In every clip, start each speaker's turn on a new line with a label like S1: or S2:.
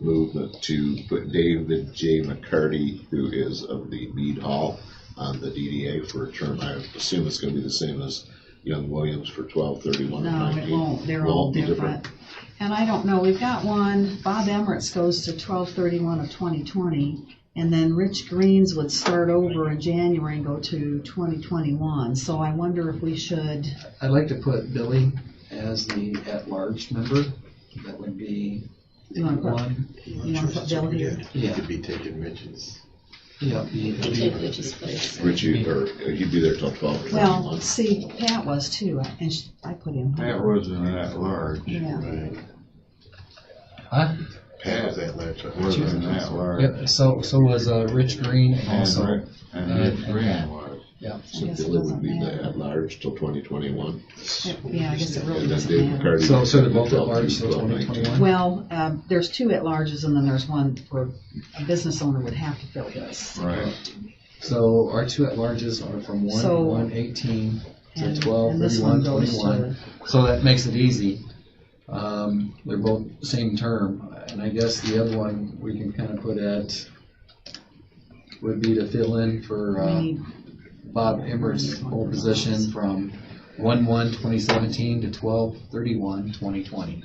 S1: move that- to put David J. McCarty, who is of the Mead Hall, on the DDA for a term. I assume it's gonna be the same as Young Williams for twelve thirty-one and
S2: No, it
S1: ninety.
S2: won't, they're all
S1: Won't be
S2: different. And I don't know, we've got one, Bob Emirates goes to twelve thirty-one of twenty twenty, and then Rich Greens would start over in January and go to twenty twenty-one, so I wonder if we should,
S3: I'd like to put Billy as the at-large member. That would be
S2: You wanna put-
S3: one.
S2: you know, put Bill here.
S3: Yeah.
S4: Could be taking Rich's.
S3: Yeah, he-
S5: You take Rich's place.
S1: Richie, or uh, he'd be there till twelve
S2: Well,
S1: thirty-one.
S2: see, Pat was too, and sh- I put him.
S6: That wasn't that large.
S2: Yeah,
S4: Right.
S3: Huh?
S4: Pat was at large. right?
S6: Wasn't that large.
S3: Yep, so, so was, uh, Rich Green and
S6: And
S3: also,
S6: Rick, and Rick Green was.
S1: So
S2: I guess it
S1: Billy would be
S2: doesn't
S1: the at-large till twenty twenty-one.
S2: It- yeah, I guess it really
S1: And then
S2: doesn't
S1: Dave
S2: matter.
S1: McCarty.
S3: so, so they're both
S1: till
S3: at-large till
S1: 12:19.
S3: 2021?
S2: Well, um, there's two at-larges and then there's one where a business owner would have to fill this.
S6: Right.
S3: So our two at-larges are from
S2: So-
S3: one, one eighteen to
S2: And-
S3: twelve,
S2: and this one
S3: thirty-one,
S2: goes to-
S3: twenty-one. So that makes it easy. Um, they're both same term, and I guess the other one we can kind of put at, would be to fill in for,
S2: We
S3: uh,
S2: need,
S3: Bob Emmert's old position from one, one, twenty seventeen to twelve, thirty-one, twenty twenty.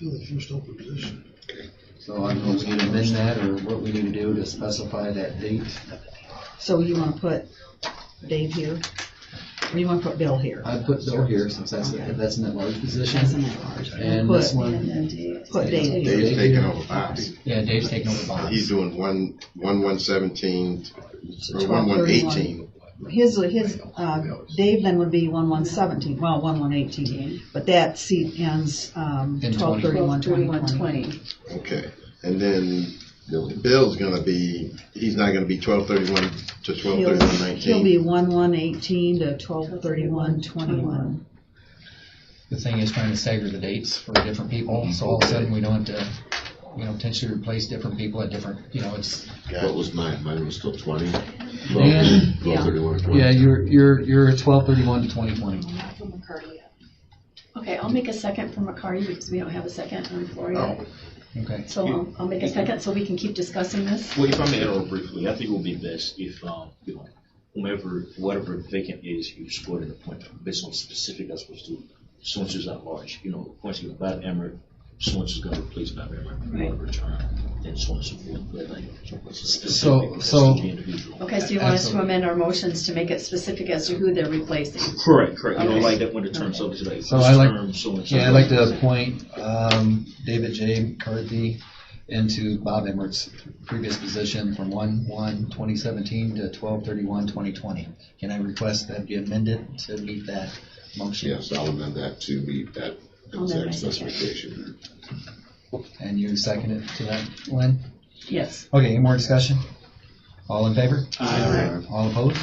S4: The first open position.
S3: So I don't know if we need to amend that or what we need to do to specify that date.
S2: so you wanna put Dave here? Or you wanna put Bill here?
S3: I put Bill here since that's, that's an at-large position.
S2: That's an at-large.
S3: And this one,
S2: Put Dave here.
S4: Dave's taking over Bob's.
S3: yeah, Dave's taking over Bob's.
S4: He's doing one, one one seventeen, or one one
S2: 12:31.
S4: eighteen.
S2: His, his, uh, Dave then would be one one seventeen, well, one one eighteen, but that seat ends, um,
S3: In
S2: twelve
S3: 20.
S2: thirty-one, twenty
S5: Twenty-one,
S2: twenty.
S5: twenty.
S4: Okay, and then Bill's gonna be, he's not gonna be twelve thirty-one to twelve
S2: He'll,
S4: thirty-one
S2: he'll be
S4: nineteen.
S2: one one eighteen to twelve thirty-one, twenty-one.
S3: The thing is trying to stagger the dates for different people, so all of a sudden we don't have to, you know, potentially replace different people at different, you know, it's.
S1: What was mine? Mine was till twenty.
S3: Yeah.
S1: Twelve thirty-one or twenty.
S3: Yeah, you're, you're, you're twelve thirty-one to twenty twenty.
S5: Okay, I'll make a second for McCarty because we don't have a second on the floor yet.
S3: Oh. Okay.
S5: So I'll, I'll make a second so we can keep discussing this.
S7: Well, if I may interrupt briefly, I think it would be best if, um, you know, whomever, whatever vacant is, you scored an appointment based on specific as opposed to someone's just at large, you know, once you Bob Emmer, someone's just gonna replace Bob Emmer for
S5: Right.
S7: whatever term, and so on and so forth, but like,
S3: So-
S7: specific as
S3: so-
S7: to the individual.
S5: Okay, so you want us to amend our motions to make it specific as to who they're replacing?
S7: Correct, correct, you know,
S5: Okay.
S7: like that when the term's up, it's like, this
S3: So I like-
S7: term, so and so.
S3: Yeah, I'd like to appoint um, David J. McCarthy into Bob Emmert's previous position from 1/1/2017 to 12/31/2020. Can I request that be amended to meet that motion?
S1: Yes, I'll amend that to be that
S5: I'll amend my
S1: exact
S5: second.
S1: specification.
S3: And you second it to that, Lynn?
S5: Yes.
S3: Okay, any more discussion? All in favor?
S7: Aye.
S3: All opposed?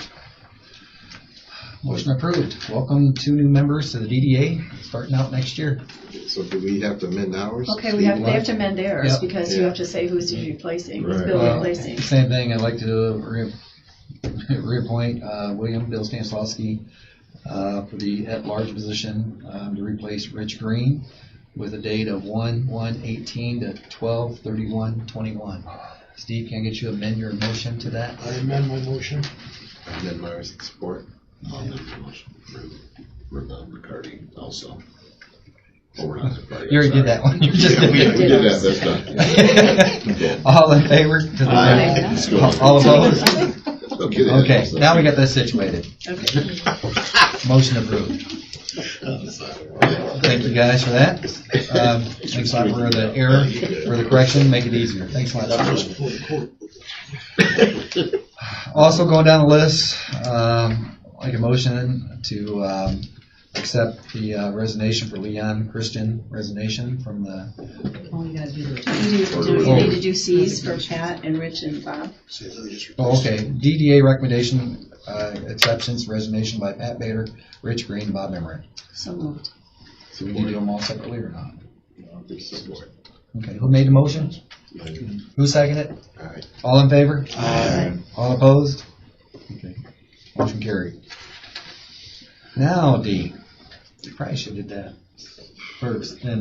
S3: Motion approved. Welcome two new members to the DDA, starting out next year.
S4: So do we have to amend ours?
S5: Okay, we have, they have to amend theirs
S3: Yep.
S5: because you
S4: Yeah.
S5: have to say who's he's replacing, who's
S1: Right.
S5: Bill
S3: Well,
S5: replacing.
S3: Same thing, I'd like to re- reappoint uh, William Bill Stanislavski uh, for the at-large position um, to replace Rich Green with a date of 1/1/18 to 12/31/21. Steve, can I get you to amend your motion to that?
S4: I amend my motion. Amend my support.
S1: I'll amend the motion to approve Renata McCarty also. Oh, we're not.
S3: You already did that one. You just
S1: Yeah, we
S3: did
S1: we did that, that's done.
S3: it. All in favor? to the-
S1: Aye. Let's go.
S3: All opposed?
S1: Don't get in.
S3: Okay, now we got this situated.
S5: Okay.
S3: Motion approved. Thank you guys for that. Um, Thanks a lot for the error, for the correction, make it easier. Thanks a lot. Also going down the list, um, like a motion to um, accept the uh, resignation for Leon Christian resignation from the,
S2: All you gotta do is.
S5: You need to do, you need to do Cs for Pat and Rich and Bob.
S3: oh, okay, DDA recommendation, uh, acceptance resignation by Pat Bader, Rich Green, and Bob Emery.
S5: So moved.
S3: So we need to do them all separately or not?
S4: Support.
S3: Okay, who made the motion? Who seconded it?
S4: Aye.
S3: All in favor? All opposed? Okay, Motion carried. Now, D, you probably should have did that first, then